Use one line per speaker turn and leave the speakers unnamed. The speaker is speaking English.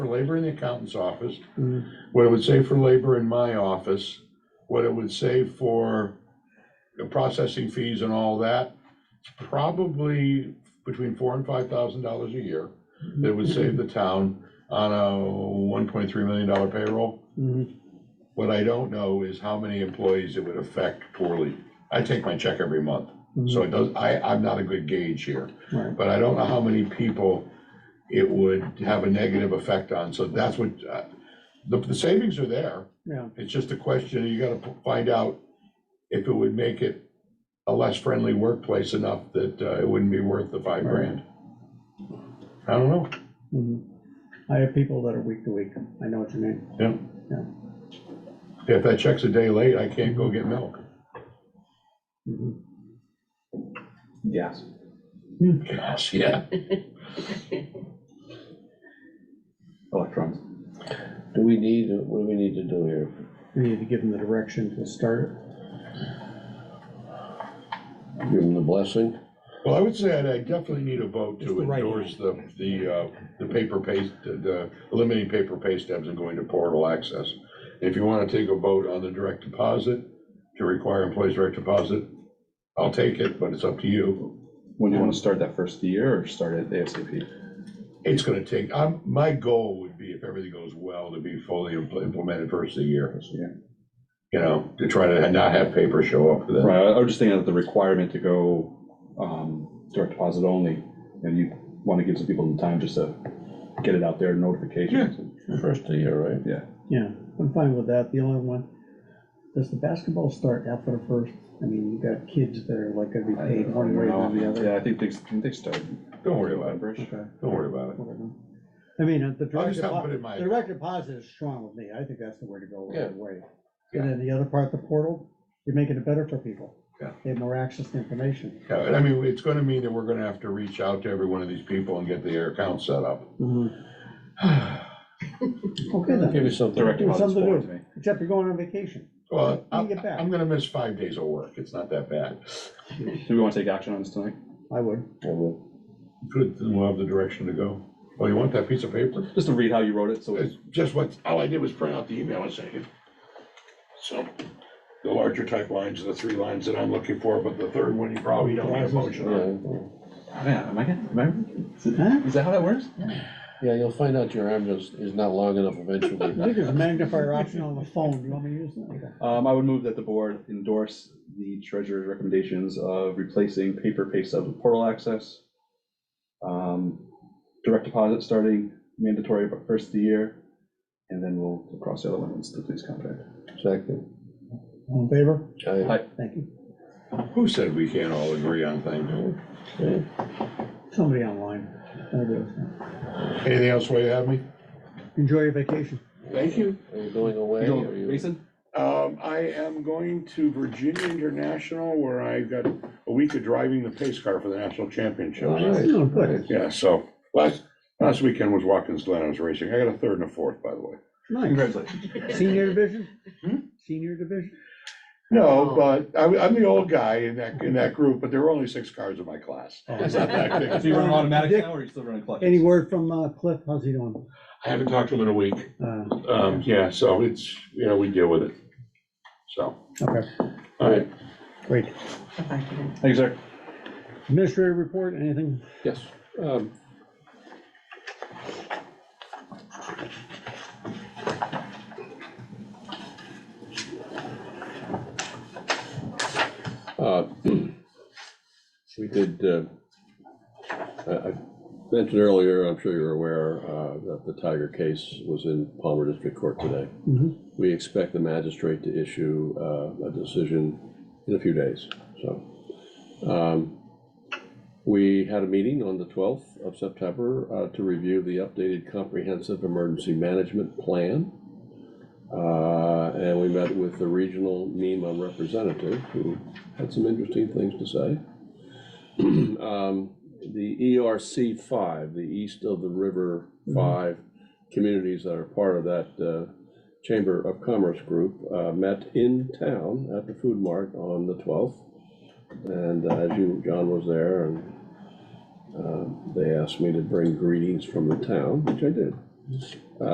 labor in the accountant's office,
Mhm.
what it would say for labor in my office, what it would say for the processing fees and all that, it's probably between four and five thousand dollars a year that would save the town on a one point three million dollar payroll.
Mhm.
What I don't know is how many employees it would affect poorly. I take my check every month, so it does, I, I'm not a good gauge here.
Mm-hmm. Right.
But I don't know how many people it would have a negative effect on, so that's what, uh, the, the savings are there.
Yeah.
It's just a question, you gotta p- find out if it would make it a less friendly workplace enough that uh, it wouldn't be worth the five
Right.
grand. I don't know,
Mhm. I have people that are week to week, I know what you mean.
if that check's a day late, I can't go get milk.
Mhm.
Yes.
Gosh, yeah.
Electrons.
Do we need, what do we need to do here?
We need to give them the direction to start.
Give them the blessing?
Well, I would say I'd- I definitely need a vote
Just
to
the right
endorse the, the, uh, the paper paste, the- the, eliminating paper pay stubs and going to portal access. If you want to take a vote on the direct deposit, to require employees direct deposit, I'll take it, but it's up to you.
When do you want to start that first year or start it ASAP?
It's gonna take, i my goal would be, if everything goes well, to be fully impl- implemented first of the year,
First year.
you know, to try to not have paper show up for that.
Right, I I was just thinking of the requirement to go um, direct deposit only, and you want to give some people the time just to get it out there, notifications.
First of the year, right?
Yeah, I'm fine with that, the only one, does the basketball start after the first? I mean, you've got kids that are like gonna be paid one way or the other.
Yeah, I think they, I think they start.
Don't worry about it,
November-ish.
Okay,
don't worry about it.
whatever. I mean, uh, the
I'll
direct
just have it put
deposit,
in my,
the direct deposit is strong with me, I think that's the way to go right
Yeah.
away.
Yeah.
And then the other part, the portal, you're making it better for people.
Yeah.
They have more access to information.
Yeah, and I mean, it's gonna mean that we're gonna have to reach out to every one of these people and get their account set up. Mm-hmm.
Okay
Give
then,
you something.
Direct
Give us
deposit's
something to
foreign
do.
to me.
except you're going on vacation.
Well,
When
I'm,
you get back.
I'm gonna miss five days of work, it's not that bad.
Do we want to take action on this tonight?
I would.
Good, then we'll have the direction to go. Oh, you want that piece of paper?
Just to read how you wrote it, so it's
It's just what, all I did was print out the email and send it. So, the larger type lines are the three lines that I'm looking for, but the third one, you probably don't have motion on.
Yeah,
Man, am I getting, am
Huh?
I, is that how that works?
Yeah, you'll find out your arm is, is not long enough eventually.
I think there's a magnifier option on the phone, do you want me to use that?
Um, I would move that the board endorse the treasurer's recommendations of replacing paper pay stubs with portal access. um, Direct deposit starting mandatory but first of the year, and then we'll we'll cross the other one once the police contract.
Second.
All in favor?
Aye.
Thank you.
Who said we can't all agree on things?
Okay.
Somebody online. That'll do it.
Anything else while you have me?
Enjoy your vacation.
Thank you.
Are you going away?
You
Are
go,
you-
Mason?
Um, I am going to Virginia International where I've got a week of driving the pace car for the national championship.
All right.
Oh, good.
Yeah, so last, last weekend was Watkins Glen, I was racing. I got a third and a fourth, by the way.
Nice.
Congratulations.
Senior division?
Hmm?
Senior division?
No, but I'm, I'm the old guy in that, in that group, but there were only six cars in my class. It's not that big.
So you run automatic now, or are you still running clutch?
Any word from uh, Cliff? How's he doing?
I haven't talked to him in a week.
Uh,
Um, yeah, so it's, you know, we deal with it. So,
Okay,
all right.
great.
Thank you, sir.
Administrative report, anything?
Yes. um, uh, We did, uh, I I mentioned earlier, I'm sure you're aware, uh, that the Tiger case was in Palmer District Court today.
Mhm.
We expect the magistrate to issue uh, a decision in a few days, so. um, we had a meeting on the twelfth of September uh, to review the updated comprehensive emergency management plan. Uh, And we met with the regional NEMA representative, who had some interesting things to say. Um, The ERC five, the East of the River five communities that are part of that uh, Chamber of Commerce group, uh, met in town at the Food Mart on the twelfth. And uh, as you, John was there, and um, they asked me to bring greetings from the town, which I did.